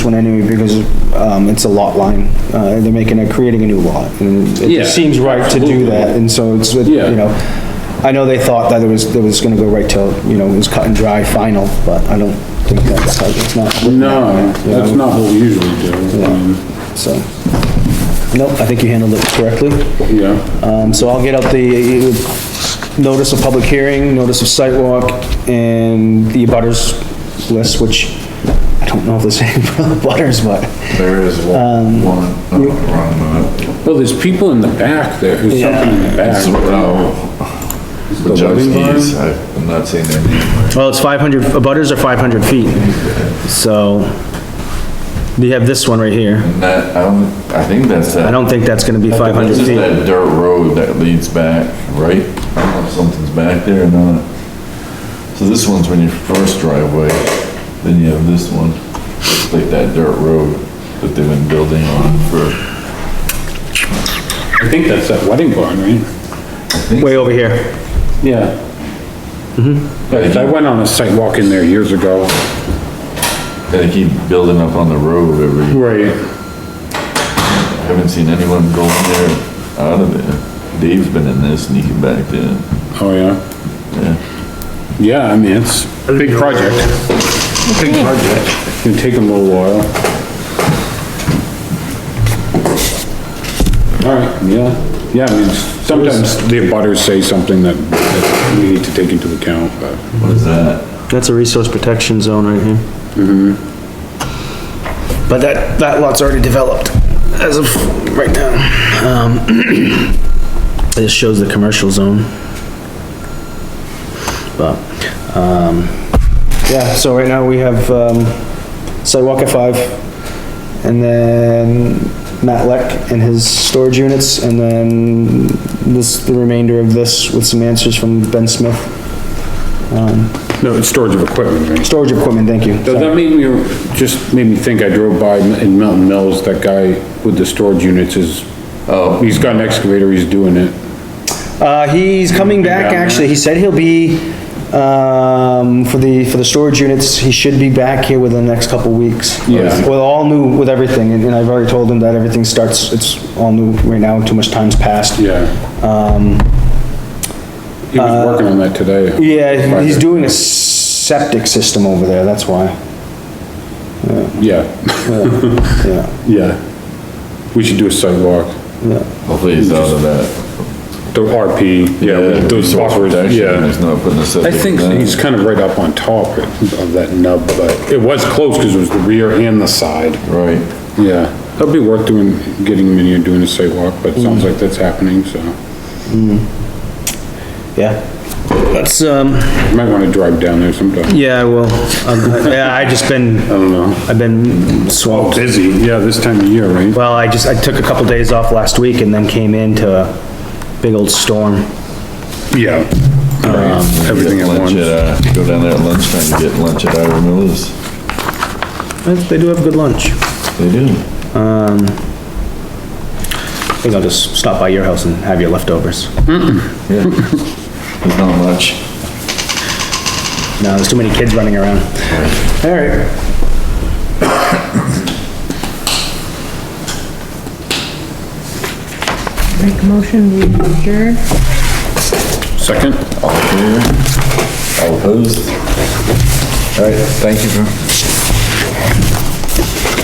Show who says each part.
Speaker 1: one anyway, because, um, it's a lot line. Uh, they're making, a creating a new lot, and it
Speaker 2: Yeah,
Speaker 1: just seems right to do that, and so it's, you
Speaker 2: Yeah.
Speaker 1: know. I know they thought that it was, it was gonna go right till, you know, it was cut and dry final, but I don't think that's, how- it's not.
Speaker 2: No,
Speaker 1: You know,
Speaker 2: that's not what we usually do. Um, I mean,
Speaker 1: So, nope, I think you handled it correctly.
Speaker 2: Yeah,
Speaker 1: Um, so I'll get out the notice of public hearing, notice of site walk, and the butters list, which I don't know if there's any butters, but
Speaker 3: There is one, one, uh, no, wrong one.
Speaker 2: well, there's people in the back there, there's something in the
Speaker 3: It's,
Speaker 2: back.
Speaker 3: uh,
Speaker 2: The living
Speaker 3: Wojcicki's,
Speaker 2: barn?
Speaker 3: I- I'm not saying their name.
Speaker 1: well, it's five hundred, butters are five hundred feet, so we have this one right here.
Speaker 3: And that, I don't, I think that's that.
Speaker 1: I don't think that's gonna be five hundred
Speaker 3: This is
Speaker 1: feet.
Speaker 3: that dirt road that leads back, right? I don't know if something's back there or not. So this one's when your first driveway, then you have this one, it's like that dirt road that they've been building on for.
Speaker 2: I think that's that wedding barn, right?
Speaker 1: Way over here.
Speaker 2: Yeah. Yeah, 'cause I went on a site walk in there years ago.
Speaker 3: They keep building up on the road every,
Speaker 2: Right.
Speaker 3: I haven't seen anyone go in there, out of there. Dave's been in there sneaking back there.
Speaker 2: Oh, yeah? Yeah, I mean, it's a big project. Big project. It'll take them a little while. All right, yeah, yeah, I mean, sometimes the abutters say something that, that we need to take into account, but.
Speaker 3: What is that?
Speaker 1: That's a resource protection zone right here. But that, that lot's already developed as of right now. Um, This shows the commercial zone. But, um, yeah, so right now we have, um, sidewalk at five, and then Matt Leck and his storage units, and then this, the remainder of this with some answers from Ben Smith.
Speaker 2: No, it's storage of equipment, right?
Speaker 1: Storage equipment, thank you.
Speaker 2: Does that made me, just made me think, I drove by in Milton Mills, that guy with the storage units is,
Speaker 3: Oh.
Speaker 2: he's got an excavator, he's doing it.
Speaker 1: Uh, he's coming back,
Speaker 2: down there?
Speaker 1: actually. He said he'll be, um, for the, for the storage units, he should be back here within the next couple weeks.
Speaker 2: Yeah.
Speaker 1: With all new, with everything, and and I've already told him that everything starts, it's all new right now, too much time's passed.
Speaker 2: Yeah. Um. uh, He was working on that today.
Speaker 1: Yeah, he's doing a septic system over there, that's why,
Speaker 2: Yeah,
Speaker 1: yeah,
Speaker 2: yeah. We should do a sidewalk,
Speaker 1: yeah.
Speaker 3: Hopefully he's out of that.
Speaker 2: the RP, yeah, those
Speaker 3: resource
Speaker 2: buffers,
Speaker 3: protection,
Speaker 2: yeah.
Speaker 3: He's not putting a
Speaker 2: I
Speaker 3: septic.
Speaker 2: think
Speaker 3: in.
Speaker 2: he's kind of right up on top of that nub, but it was close because it was the rear and the side.
Speaker 3: Right,
Speaker 2: Yeah, that'd be worth doing, getting him in here doing a sidewalk, but it sounds like that's happening, so.
Speaker 1: Yeah. That's, um,
Speaker 2: You might want to drive down there sometime.
Speaker 1: yeah, well, um, yeah, I just been,
Speaker 2: I don't know.
Speaker 1: I've been swamped.
Speaker 2: Oh, Busy, yeah, this time of year, right?
Speaker 1: Well, I just, I took a couple days off last week and then came into a big old storm.
Speaker 2: Yeah. Um, Everything
Speaker 3: get
Speaker 2: at once.
Speaker 3: lunch at, uh, go down there at lunchtime to get lunch at Ira Miller's.
Speaker 1: They do have good lunch.
Speaker 3: They do.
Speaker 1: I think I'll just stop by your house and have your leftovers.
Speaker 3: Yeah. There's not much.
Speaker 1: No, there's too many kids running around. All right.
Speaker 4: Make a motion, we adjourn.
Speaker 2: Second?
Speaker 3: All in favor? All opposed? All right, thank you for